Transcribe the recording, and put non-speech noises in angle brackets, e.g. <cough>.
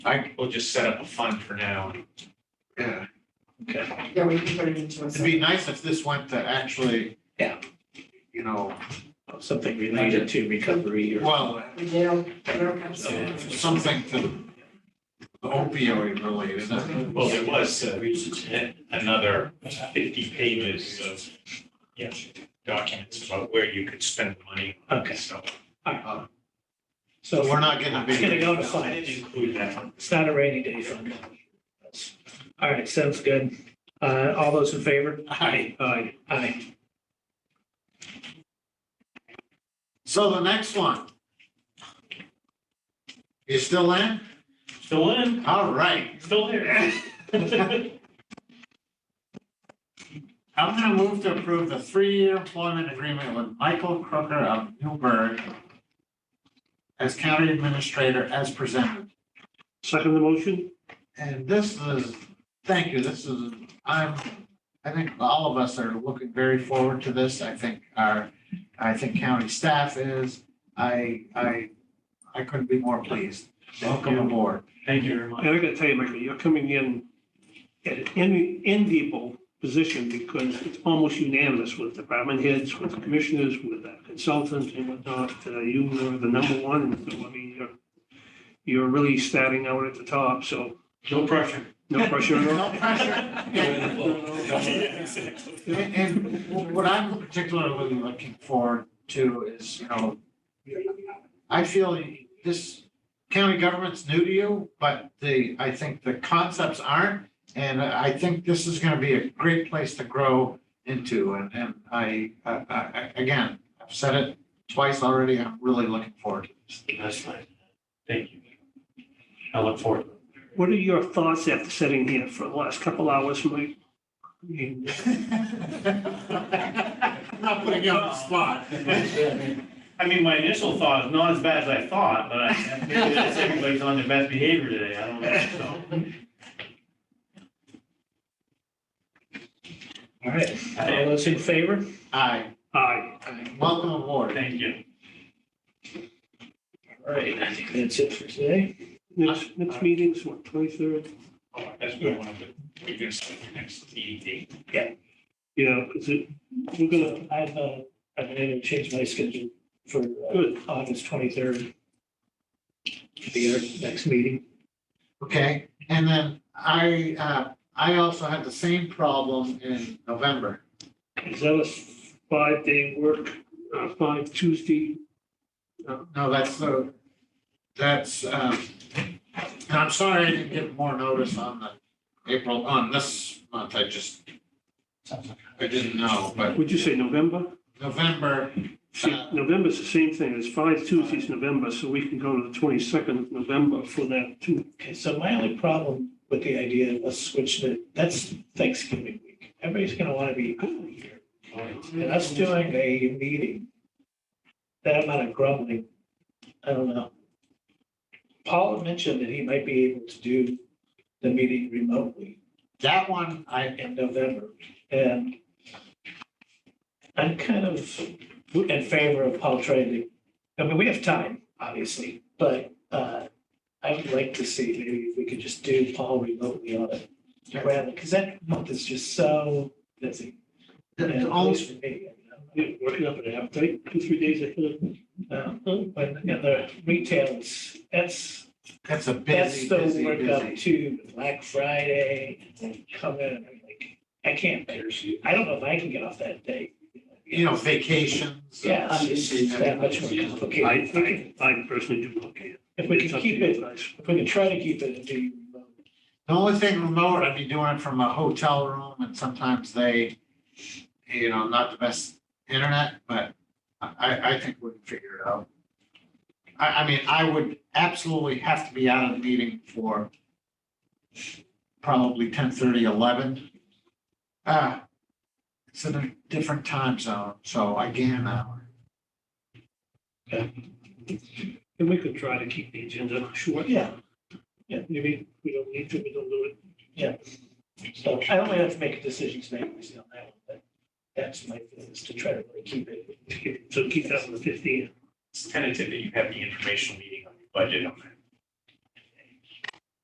I, we'll just set up a fund for now. Yeah, Okay. Yeah, we can put it into a. it'd be nice if this went to actually. Yeah. You know, Something related to recovery or. well, We do, we don't have Yeah. to. something to the opioid related. Well, there was uh, another fifty pages of, yeah, documents about where you could spend money. Okay. So So So we're not getting a It's gonna big. go to I fund. didn't include that. It's not a rainy day fund. All right, sounds good. Uh, all those in favor? Aye. Aye, aye. So the next one. You still in? Still in, All right. still <laughs> here. I'm gonna move to approve the three-year employment agreement with Michael Crooker of Newburgh as county administrator as presented. Second the motion? And this is, thank you, this is, I'm, I think all of us are looking very forward to this. I think our, I think county staff is, I, I, I couldn't be more pleased. Welcome aboard. Thank you very much. And I gotta tell you, Michael, you're coming in at an en- enviable position because it's almost unanimous with department heads, with commissioners, with uh, consultants and whatnot. Uh, You were the number one, so I mean, you're, you're really starting out at the top, so No pressure. no pressure at all. <laughs> No pressure. And- And what I'm particularly looking forward to is, you know, I feel this county government's new to you, but the, I think the concepts aren't. And I think this is gonna be a great place to grow into. And, and I, I, I, again, I've said it twice already. I'm really looking forward to this. That's fine. Thank you. I look forward. <laughs> What are your thoughts after sitting here for the last couple hours, Mike? I mean, I'm Not putting you on the spot. I mean, my initial thought is not as bad as I thought, but I, I think that's everybody's on their best behavior today, I don't know, so. All right, all those in favor? Aye, Aye. welcome aboard. Thank you. All right, I think that's it for today. Next, next meeting's what, twenty-third? Oh, That's good. One of the- We're gonna start the next meeting date. Yeah, is it, we're gonna, So I've, uh, I've been able to change my schedule for uh, good. August twenty-third. Be our next meeting. Okay, and then I, uh, I also had the same problem in November. Is that a five-day work, uh, five Tuesday? No, that's the, that's, um, and I'm sorry I didn't get more notice on the April, on this month, I just, I didn't know, but Would you say November? November, uh, See, Uh, November's the same thing, it's five Tuesdays, November, so we can go to the twenty-second of November for that too. Okay, so my only problem with the idea of us switching it, that's Thanksgiving week. Everybody's gonna wanna be here. And us doing a meeting, that amount of grumbling, I don't know. Paul had mentioned that he might be able to do the meeting remotely that one, I, in November, and I'm kind of in favor of Paul trying to, I mean, we have time, obviously, but uh, I would like to see maybe if we could just do Paul remotely on it, rather, because that month is just so busy. the- and the At only, least for me, Yeah, working up an appetite, two, three days ahead of. you know, uh, Mm-hmm. but, you know, the retail is, that's, that's a that's busy, the busy, work up busy. too, Black Friday, and come in, I'm like, I can't, I don't know if I can get off that day. You know, vacations. Yeah, it's just- it's that much more I, complicated. I, I personally do look at it. If we It's can up to keep you it, guys. if we can try to keep it and do remote, The only thing remote, I'd be doing it from a hotel room and sometimes they, you know, not the best internet, but I- I, I think we can figure it out. I, I mean, I would absolutely have to be out of the meeting for probably 10:30, 11. Ah, it's in a different time zone, so I can, uh, And we could try to keep the agenda short. Yeah. Yeah, maybe we don't need to, we don't do it. so I only have to make a decision tonight, obviously, on that one, but that's my, thing, is to try to really keep it. So keep that on the fifteenth. It's tentative that you have the informational meeting on your budget on that